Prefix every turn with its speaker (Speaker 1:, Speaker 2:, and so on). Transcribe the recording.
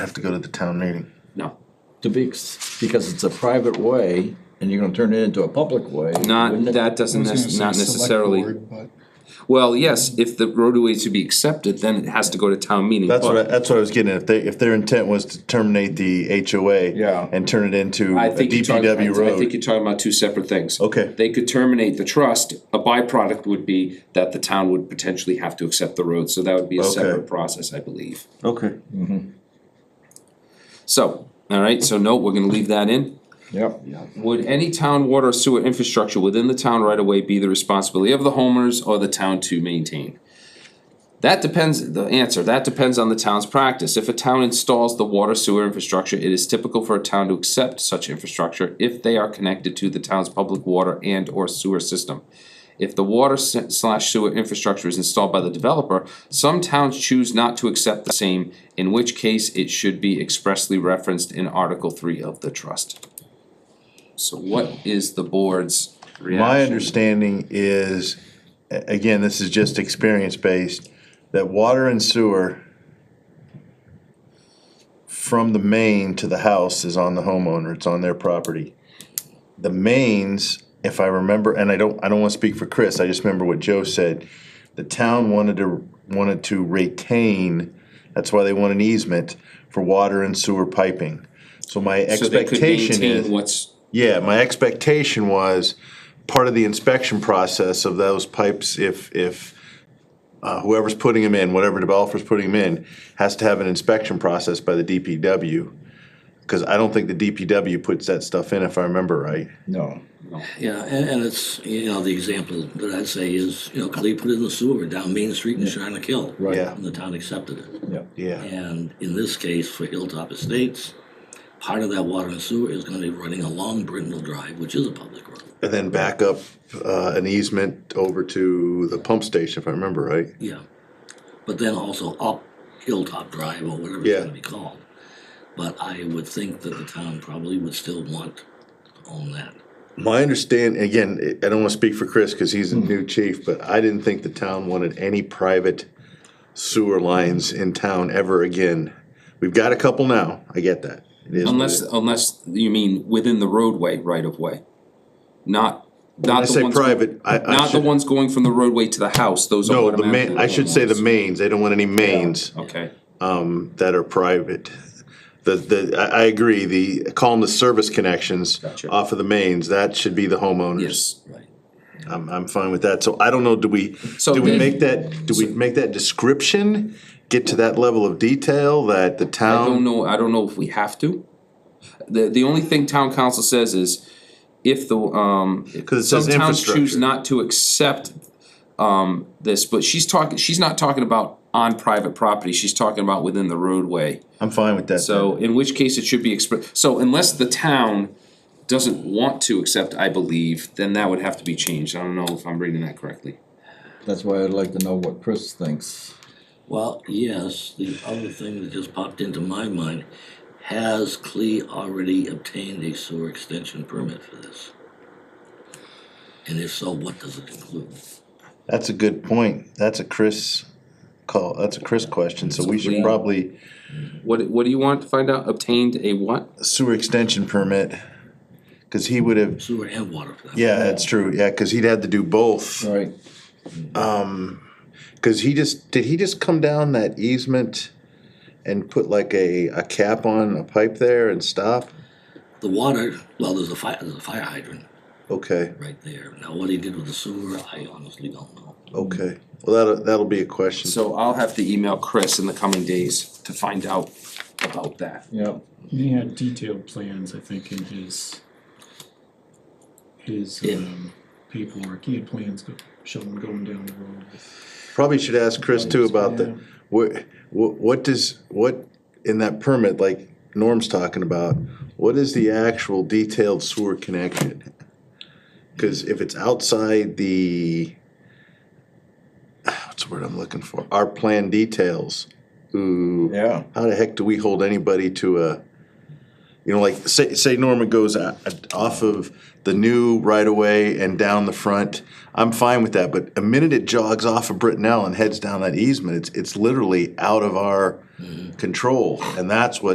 Speaker 1: have to go to the town meeting.
Speaker 2: No,
Speaker 3: To be, because it's a private way and you're gonna turn it into a public way.
Speaker 2: not,
Speaker 3: wouldn't it?
Speaker 2: that doesn't,
Speaker 4: I was
Speaker 2: nec-
Speaker 4: gonna
Speaker 2: not
Speaker 4: say select
Speaker 2: necessarily.
Speaker 4: board, but-
Speaker 2: Well, yes, if the roadway is to be accepted, then it has to go to town meeting.
Speaker 1: That's what, I-
Speaker 2: but
Speaker 1: that's what I was getting at. If they, if their intent was to terminate the HOA.
Speaker 3: Yeah.
Speaker 1: And turn it into
Speaker 2: I
Speaker 1: a
Speaker 2: think you're talking,
Speaker 1: DPW
Speaker 2: I I think
Speaker 1: road.
Speaker 2: you're talking about two separate things.
Speaker 1: Okay.
Speaker 2: They could terminate the trust, a byproduct would be that the town would potentially have to accept the road, so that would be a
Speaker 1: Okay.
Speaker 2: separate process, I believe.
Speaker 1: Okay.
Speaker 2: So, all right, so no, we're gonna leave that in.
Speaker 3: Yep.
Speaker 2: Would any town water or sewer infrastructure within the town right away be the responsibility of the homeowners or the town to maintain? That depends, the answer, that depends on the town's practice. If a town installs the water sewer infrastructure, it is typical for a town to accept such infrastructure if they are connected to the town's public water and or sewer system. If the water se- slash sewer infrastructure is installed by the developer, some towns choose not to accept the same, in which case it should be expressly referenced in Article three of the trust. So what is the board's
Speaker 1: My
Speaker 2: reaction?
Speaker 1: understanding is, a- again, this is just experience based, that water and sewer from the main to the house is on the homeowner, it's on their property. The mains, if I remember, and I don't, I don't wanna speak for Chris, I just remember what Joe said. The town wanted to, wanted to retain, that's why they want an easement for water and sewer piping. So my
Speaker 2: So they could
Speaker 1: expectation
Speaker 2: maintain
Speaker 1: is.
Speaker 2: What's,
Speaker 1: Yeah, my expectation was part of the inspection process of those pipes, if, if uh, whoever's putting them in, whatever developer's putting them in, has to have an inspection process by the DPW. Cause I don't think the DPW puts that stuff in if I remember right.
Speaker 3: No.
Speaker 5: Yeah, and, and it's, you know, the example that I'd say is, you know, Khalid put it in the sewer down Main Street in Shinnecock Hill.
Speaker 3: Right.
Speaker 1: Yeah.
Speaker 5: And the town accepted it.
Speaker 3: Yeah.
Speaker 1: Yeah,
Speaker 5: And in this case, for Hilltop Estates, part of that water and sewer is gonna be running along Brindle Drive, which is a public road.
Speaker 1: and then back up, uh, an easement over to the pump station if I remember right.
Speaker 5: Yeah. But then also up Hilltop Drive or whatever
Speaker 1: Yeah.
Speaker 5: it's gonna be called. But I would think that the town probably would still want to own that.
Speaker 1: My understand, again, I I don't wanna speak for Chris, cause he's a
Speaker 2: Hmm.
Speaker 1: new chief, but I didn't think the town wanted any private sewer lines in town ever again. We've got a couple now, I get that. It is what
Speaker 2: unless,
Speaker 1: it-
Speaker 2: unless you mean within the roadway right of way, not,
Speaker 1: When I
Speaker 2: not the
Speaker 1: say
Speaker 2: ones.
Speaker 1: private, I, I
Speaker 2: Not the
Speaker 1: should,
Speaker 2: ones going from the roadway to the house, those are.
Speaker 1: no, the
Speaker 2: automatically
Speaker 1: main, I should say the
Speaker 2: ones.
Speaker 1: mains, they don't want any mains,
Speaker 2: Okay,
Speaker 1: um, that are private. The, the, I, I agree, the, call them the service connections
Speaker 2: Gotcha.
Speaker 1: off of the mains, that should be the homeowners.
Speaker 2: yes,
Speaker 5: Right.
Speaker 1: I'm, I'm fine with that, so I don't know, do we,
Speaker 2: So
Speaker 1: do we
Speaker 2: then-
Speaker 1: make that, do we make that description? Get to that level of detail that the
Speaker 2: I don't
Speaker 1: town,
Speaker 2: know, I don't know if we have to. The, the only thing town council says is if the, um.
Speaker 1: Cause it says
Speaker 2: Some towns choose
Speaker 1: infrastructure.
Speaker 2: not to accept, um, this, but she's talking, she's not talking about on private property, she's talking about within the roadway.
Speaker 1: I'm fine with that.
Speaker 2: So in which case it should be expressed, so unless the town doesn't want to accept, I believe, then that would have to be changed. I don't know if I'm reading that correctly.
Speaker 3: That's why I'd like to know what Chris thinks.
Speaker 5: Well, yes, the other thing that just popped into my mind, has Clee already obtained a sewer extension permit for this? And if so, what does it include?
Speaker 1: That's a good point, that's a Chris call, that's a Chris question, so we should
Speaker 2: Yeah.
Speaker 1: probably
Speaker 2: What, what do you want to find out? Obtained a what?
Speaker 1: sewer extension permit. Cause he would have,
Speaker 5: Sewer and water for that.
Speaker 1: yeah, that's true, yeah, cause he'd had to do both.
Speaker 3: All right.
Speaker 1: Cause he just, did he just come down that easement and put like a, a cap on a pipe there and stop?
Speaker 5: The water, well, there's a fire, there's a fire hydrant
Speaker 1: Okay,
Speaker 5: right there. Now, what he did with the sewer, I honestly don't know.
Speaker 1: okay, well, that'll, that'll be a question.
Speaker 2: So I'll have to email Chris in the coming days to find out about that.
Speaker 3: Yeah.
Speaker 4: He had detailed plans, I think, in his, his
Speaker 5: Yeah.
Speaker 4: um, paperwork, he had plans go- showing going down the road.
Speaker 1: Probably should ask Chris too about the, what, what, what does, what, in that permit, like Norm's talking about, what is the actual detailed sewer connection? Cause if it's outside the, ah, what's the word I'm looking for, our plan details, ooh,
Speaker 3: Yeah.
Speaker 1: how the heck do we hold anybody to a, you know, like, say, say Norman goes o- off of the new right of way and down the front, I'm fine with that, but a minute it jogs off of Brittenell and heads down that easement, it's, it's literally out of our control, and that's what